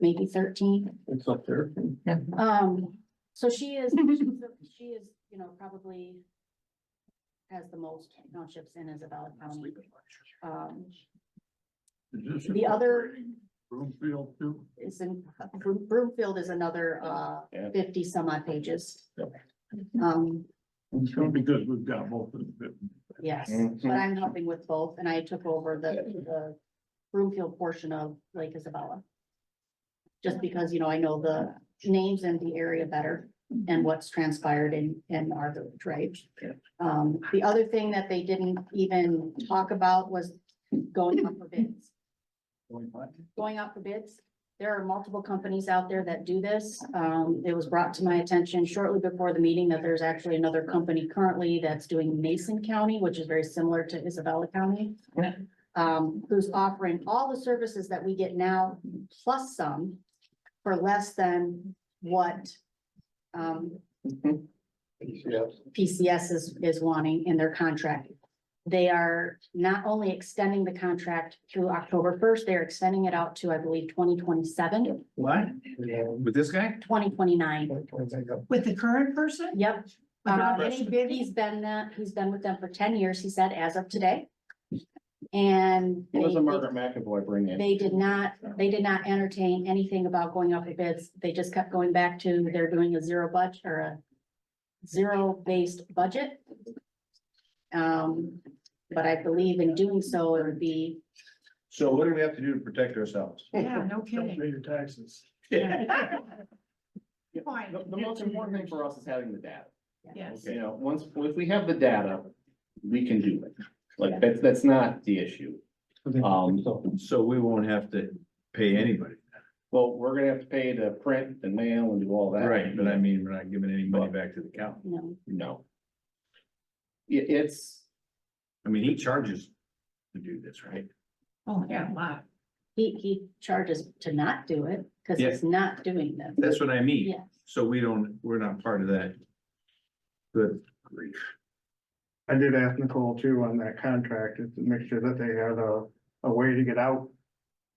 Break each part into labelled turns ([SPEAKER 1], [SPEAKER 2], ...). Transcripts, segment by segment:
[SPEAKER 1] maybe thirteen.
[SPEAKER 2] It's up there.
[SPEAKER 1] Um, so she is, she is, you know, probably has the most townships in Isabella County. Um, The other-
[SPEAKER 2] Broomfield too.
[SPEAKER 1] is in, Broom- Broomfield is another, uh,
[SPEAKER 3] Yeah.
[SPEAKER 1] fifty some odd pages.
[SPEAKER 2] Yep.
[SPEAKER 1] Um,
[SPEAKER 2] It's gonna be good, we've got both of them.
[SPEAKER 1] yes,
[SPEAKER 3] Mhm.
[SPEAKER 1] but I'm helping with both and I took over the, the Broomfield portion of Lake Isabella. Just because, you know, I know the names and the area better and what's transpired in, in our village, right?
[SPEAKER 2] Yeah.
[SPEAKER 1] Um, the other thing that they didn't even talk about was going up for bids going out for bids. There are multiple companies out there that do this. Um, it was brought to my attention shortly before the meeting that there's actually another company currently that's doing Mason County, which is very similar to Isabella County.
[SPEAKER 3] Yeah.
[SPEAKER 1] Um, who's offering all the services that we get now, plus some, for less than what um, PCS is, is wanting in their contract. They are not only extending the contract through October first, they're extending it out to, I believe, 2027, 2029.
[SPEAKER 3] What? With this guy?
[SPEAKER 4] With the current person?
[SPEAKER 1] Yep. Um,
[SPEAKER 4] Without any bidding?
[SPEAKER 1] He's been, that- he's been with them for ten years, he said, as of today. And
[SPEAKER 3] What does
[SPEAKER 1] they-
[SPEAKER 3] a Margaret McAvoy bring in?
[SPEAKER 1] they did not, they did not entertain anything about going up for bids. They just kept going back to they're doing a zero budget or a zero-based budget. Um, but I believe in doing so, it would be,
[SPEAKER 3] So what do we have to do to protect ourselves?
[SPEAKER 4] Yeah, no
[SPEAKER 2] Don't
[SPEAKER 4] kidding.
[SPEAKER 2] pay your taxes.
[SPEAKER 4] Fine.
[SPEAKER 3] The, the most important thing for us is having the data.
[SPEAKER 4] Yes.
[SPEAKER 3] You know, once, if we have the data, we can do it. Like, that's, that's not the issue. Um,
[SPEAKER 5] So we won't have to pay anybody,
[SPEAKER 3] well, we're gonna have to pay to print and mail and do all that.
[SPEAKER 5] right, but I mean, we're not giving any money back to the county.
[SPEAKER 1] you know,
[SPEAKER 3] No. It, it's,
[SPEAKER 5] I mean, he charges to do this, right?
[SPEAKER 4] Oh, yeah, wow.
[SPEAKER 1] he, he charges to not do it because he's not doing them.
[SPEAKER 5] That's what I mean,
[SPEAKER 1] Yes.
[SPEAKER 5] so we don't, we're not part of that. Good grief.
[SPEAKER 6] I did ask Nicole too on that contract, is to make sure that they had a, a way to get out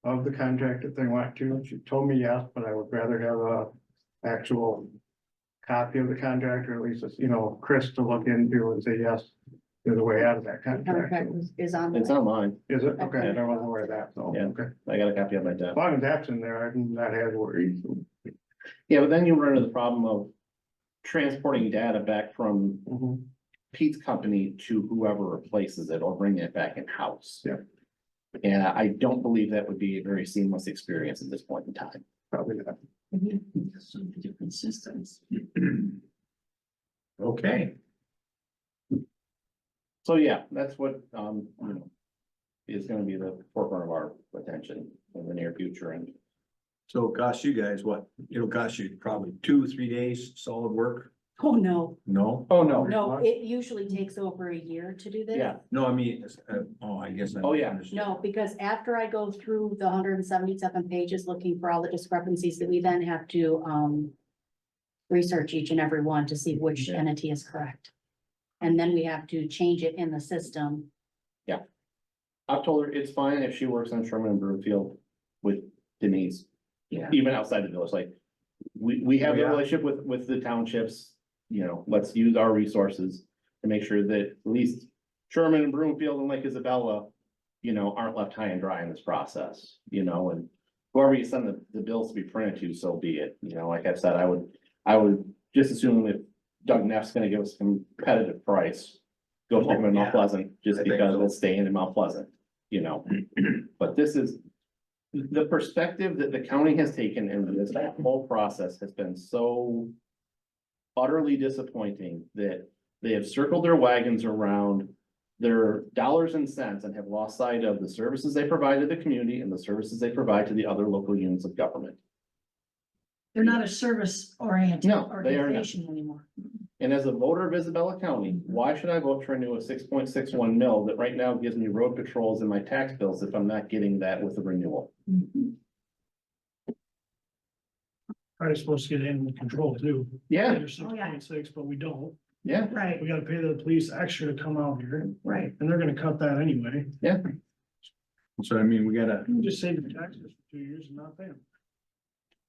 [SPEAKER 6] of the contract if they want to. And She told me yes, but I would rather have a actual copy of the contract or at least, you know, Chris to look into and say, yes, there's a way out of that contract.
[SPEAKER 1] Contract is on. the-
[SPEAKER 3] it's online.
[SPEAKER 6] Is it? Okay, I wasn't aware of that, so,
[SPEAKER 3] Yeah.
[SPEAKER 6] okay.
[SPEAKER 3] I got a copy of my
[SPEAKER 6] As
[SPEAKER 3] desk.
[SPEAKER 6] long as that's in there, I can not have worries.
[SPEAKER 3] Yeah, but then you run into the problem of transporting data back from
[SPEAKER 6] Mhm.
[SPEAKER 3] Pete's company to whoever replaces it or bringing it back in-house.
[SPEAKER 6] Yeah.
[SPEAKER 3] And I don't believe that would be a very seamless experience at this point in time.
[SPEAKER 6] Probably not.
[SPEAKER 4] Some different systems.
[SPEAKER 5] Okay,
[SPEAKER 3] So yeah, that's what, um, you know, is gonna be the forefront of our attention in the near future and
[SPEAKER 5] so it costs you guys what, it'll cost you probably two, three days solid work,
[SPEAKER 1] Oh, no,
[SPEAKER 5] no?
[SPEAKER 3] Oh, no,
[SPEAKER 1] no, it usually takes over a year to do this.
[SPEAKER 3] yeah,
[SPEAKER 5] No, I mean, it's, uh, oh, I guess. I
[SPEAKER 3] Oh, yeah.
[SPEAKER 5] misunderstood.
[SPEAKER 1] No, because after I go through the hundred and seventy-seven pages looking for all the discrepancies that we then have to, um. Research each and every one to see which
[SPEAKER 3] Yeah.
[SPEAKER 1] entity is correct. And then we have to change it in the system.
[SPEAKER 3] I've told her it's fine if she works on Sherman and Broomfield with Denise.
[SPEAKER 4] Yeah.
[SPEAKER 3] Even outside the village, like, we, we have a
[SPEAKER 5] Yeah.
[SPEAKER 3] relationship with, with the townships, you know, let's use our resources. To make sure that at least Sherman and Broomfield and Lake Isabella, you know, aren't left high and dry in this process, you know, and. Whoever you send the, the bills to be printed to, so be it, you know, like I've said, I would, I would just assume if Doug Neff's gonna give us a competitive price. Go pick him in Mount
[SPEAKER 5] Yeah.
[SPEAKER 3] Pleasant, just
[SPEAKER 5] I think
[SPEAKER 3] because
[SPEAKER 5] so.
[SPEAKER 3] it's staying in Mount Pleasant, you know, but this is. The perspective that the county has taken in this whole process has been so. Utterly disappointing that they have circled their wagons around their dollars and cents and have lost sight of the services they provide to the community and the services they provide to the other local units of government.
[SPEAKER 4] They're not a service oriented
[SPEAKER 3] No, they are not.
[SPEAKER 4] organization anymore.
[SPEAKER 3] And as a voter of Isabella County, why should I vote for a new six point six one mil that right now gives me road patrols and my tax bills if I'm not getting that with the renewal?
[SPEAKER 4] Mhm.
[SPEAKER 2] Probably supposed to get animal control too.
[SPEAKER 3] Yeah,
[SPEAKER 2] There's
[SPEAKER 4] Oh, yeah.
[SPEAKER 2] 6.6, but we don't.
[SPEAKER 3] yeah,
[SPEAKER 4] Right,
[SPEAKER 2] We gotta pay the police extra to come out here
[SPEAKER 4] right.
[SPEAKER 2] and they're gonna cut that anyway.
[SPEAKER 5] So I mean, we gotta,
[SPEAKER 2] You can just save your taxes for two years and not pay them.